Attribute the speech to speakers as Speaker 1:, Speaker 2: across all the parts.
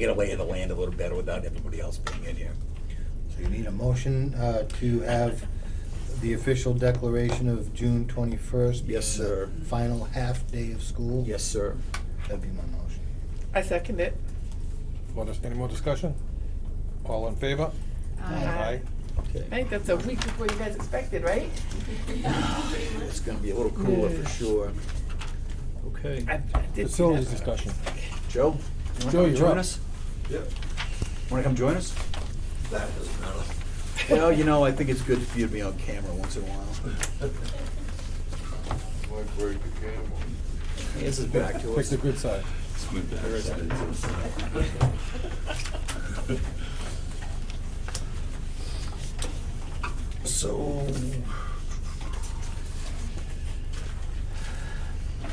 Speaker 1: get away in the land a little better without everybody else being in here.
Speaker 2: So you need a motion uh, to have the official declaration of June twenty-first.
Speaker 1: Yes, sir.
Speaker 2: Final half day of school.
Speaker 1: Yes, sir.
Speaker 2: That'd be my motion.
Speaker 3: I second it.
Speaker 4: What is, any more discussion? All in favor?
Speaker 3: Aye. I
Speaker 1: Okay.
Speaker 3: think that's a week before you guys expected, right?
Speaker 1: It's gonna be a little cooler for sure. Okay.
Speaker 3: I- I did see
Speaker 4: Facilities
Speaker 3: that.
Speaker 4: discussion.
Speaker 1: Joe? you wanna
Speaker 4: Joe,
Speaker 1: come
Speaker 4: you're
Speaker 1: join
Speaker 4: up.
Speaker 1: us?
Speaker 5: Yep,
Speaker 1: Wanna come join us?
Speaker 5: that doesn't matter.
Speaker 1: Well, you know, I think it's good for you to be on camera once in a while.
Speaker 5: Might break the camera.
Speaker 1: This is back to
Speaker 4: Pick
Speaker 1: us.
Speaker 4: the good side.
Speaker 5: So.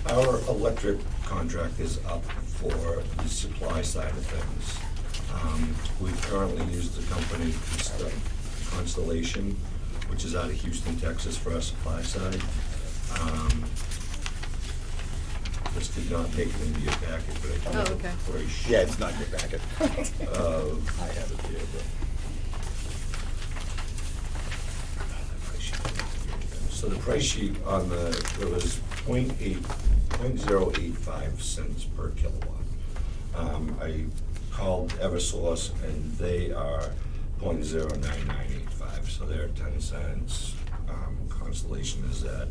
Speaker 5: Our electric contract is up for the supply side of things. Um, We currently use the company Const- Constellation, which is out of Houston, Texas for our supply side. Um, This did not make it into your packet, but I
Speaker 6: Oh,
Speaker 5: can
Speaker 6: okay.
Speaker 5: have a very short.
Speaker 1: Yeah, it's not in your packet.
Speaker 5: of
Speaker 1: I have it here,
Speaker 5: So the price sheet on the, it was point eight, point zero eight five cents per kilowatt. Um, I called Eversource and they are point zero nine nine eight five, so they're ten cents. Um, Constellation is at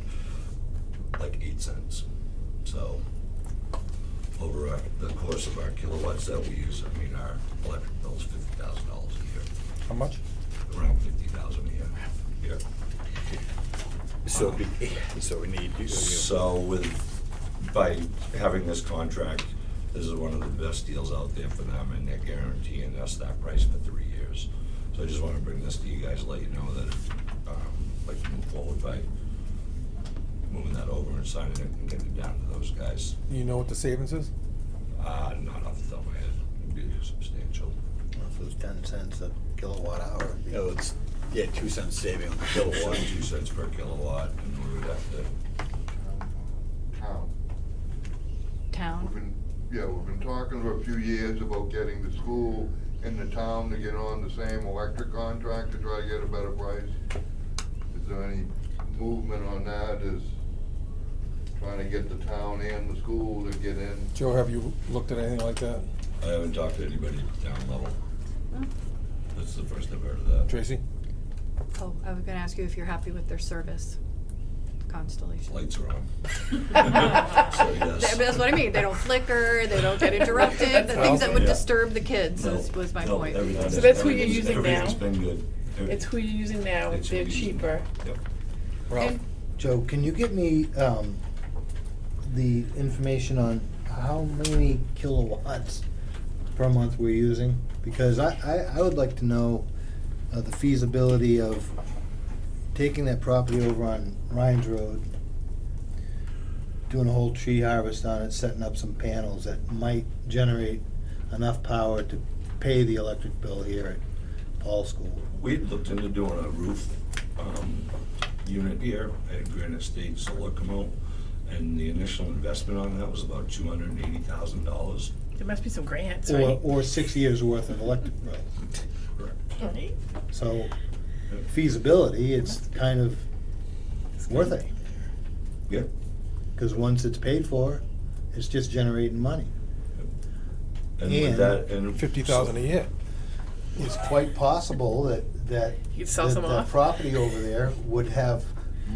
Speaker 5: like eight cents, so over our- the course of our kilowatts that we use, I mean, our electric bill's fifty thousand dollars a year,
Speaker 4: How much?
Speaker 5: around fifty thousand a year. Yeah.
Speaker 1: but, so be, so we need you.
Speaker 5: So with, by having this contract, this is one of the best deals out there for them, and they're guaranteeing us that price for three years. So I just wanna bring this to you guys, let you know that, um, like to move forward by moving that over and signing it and getting it down to those guys.
Speaker 4: You know what the savings is?
Speaker 5: Uh, not off the top of my head, it'd be substantial.
Speaker 2: Well, If it was ten cents a kilowatt hour. it'd be-
Speaker 1: No, Oh, it's, yeah, two cents saving on the kilowatt.
Speaker 5: Two cents per kilowatt, and we would have to
Speaker 7: Um, town. We've
Speaker 6: Town.
Speaker 7: been, yeah, we've been talking for a few years about getting the school and the town to get on the same electric contract to try to get a better price. Is there any movement on that, is trying to get the town and the school to get in?
Speaker 4: Joe, have you looked at anything like that?
Speaker 5: I haven't talked to anybody at the town level. This is the first I've heard of that.
Speaker 4: Tracy?
Speaker 6: Oh, I was gonna ask you if you're happy with their service, Constellation.
Speaker 5: Lights are on. So,
Speaker 6: That-
Speaker 5: yes.
Speaker 6: That's what I mean, they don't flicker, they don't get interrupted, the things that would disturb the kids is, was my
Speaker 5: No,
Speaker 6: point.
Speaker 5: everything
Speaker 3: So
Speaker 5: is-
Speaker 3: that's who you're
Speaker 5: everything's-
Speaker 3: using now?
Speaker 5: Everything's been good. Every-
Speaker 3: It's who you're using now,
Speaker 5: it's
Speaker 3: they're
Speaker 5: who you're using.
Speaker 3: cheaper.
Speaker 5: Yep.
Speaker 4: Ralph?
Speaker 6: And-
Speaker 2: Joe, can you get me um, the information on how many kilowatts per month we're using? Because I, I, I would like to know uh, the feasibility of taking that property over on Rhines Road, doing a whole tree harvest on it, setting up some panels that might generate enough power to pay the electric bill here at Paul School.
Speaker 5: We had looked into doing a roof, um, unit here at Granite State Solar come out, and the initial investment on that was about two hundred and eighty thousand dollars.
Speaker 3: There must be some grants,
Speaker 2: Or,
Speaker 3: right?
Speaker 2: or six years' worth of electric bill.
Speaker 5: Correct.
Speaker 3: Right?
Speaker 2: So feasibility, it's kind of worth it,
Speaker 5: Yeah,
Speaker 2: because once it's paid for, it's just generating money.
Speaker 5: and with
Speaker 2: And
Speaker 5: that, and.
Speaker 4: Fifty thousand a year.
Speaker 2: It's quite possible that, that.
Speaker 3: You could sell
Speaker 2: that
Speaker 3: some
Speaker 2: the
Speaker 3: off.
Speaker 2: property over there would have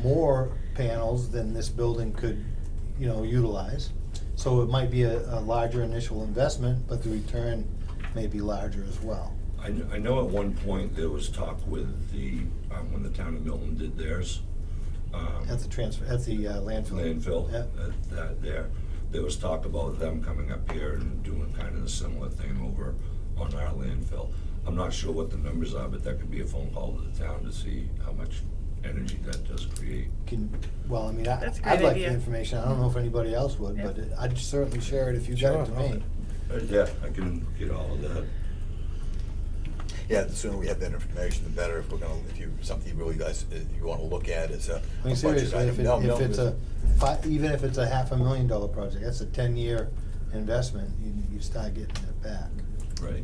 Speaker 2: more panels than this building could, you know, utilize. So it might be a, a larger initial investment, but the return may be larger as well.
Speaker 5: I, kn- I know at one point there was talk with the, um, when the town of Milton did theirs. um,
Speaker 2: At the transfer, at the uh, landfill.
Speaker 5: landfill,
Speaker 2: Yeah.
Speaker 5: that- that there. There was talk about them coming up here and doing kind of a similar thing over on our landfill. I'm not sure what the numbers are, but that could be a phone call to the town to see how much energy that does create.
Speaker 2: Can, well, I mean, I,
Speaker 3: That's a
Speaker 2: I'd
Speaker 3: great
Speaker 2: like the
Speaker 3: idea.
Speaker 2: information, I don't know if anybody else would,
Speaker 3: Yeah.
Speaker 2: but it- I'd certainly share it if you got it to
Speaker 4: Sure,
Speaker 2: me.
Speaker 4: I'll-
Speaker 5: Uh, Yeah, I can get all of that.
Speaker 1: Yeah, the sooner we have that information, the better, if we're gonna, if you, something you really guys, uh, you wanna look at is uh, a
Speaker 2: I
Speaker 1: a
Speaker 2: mean,
Speaker 1: budget
Speaker 2: seriously,
Speaker 1: item.
Speaker 2: if, it,
Speaker 1: No,
Speaker 2: if
Speaker 1: no,
Speaker 2: it's
Speaker 1: there's-
Speaker 2: a fi- even if it's a half a million dollar project, that's a ten year investment. You, you start getting it back.
Speaker 5: Right.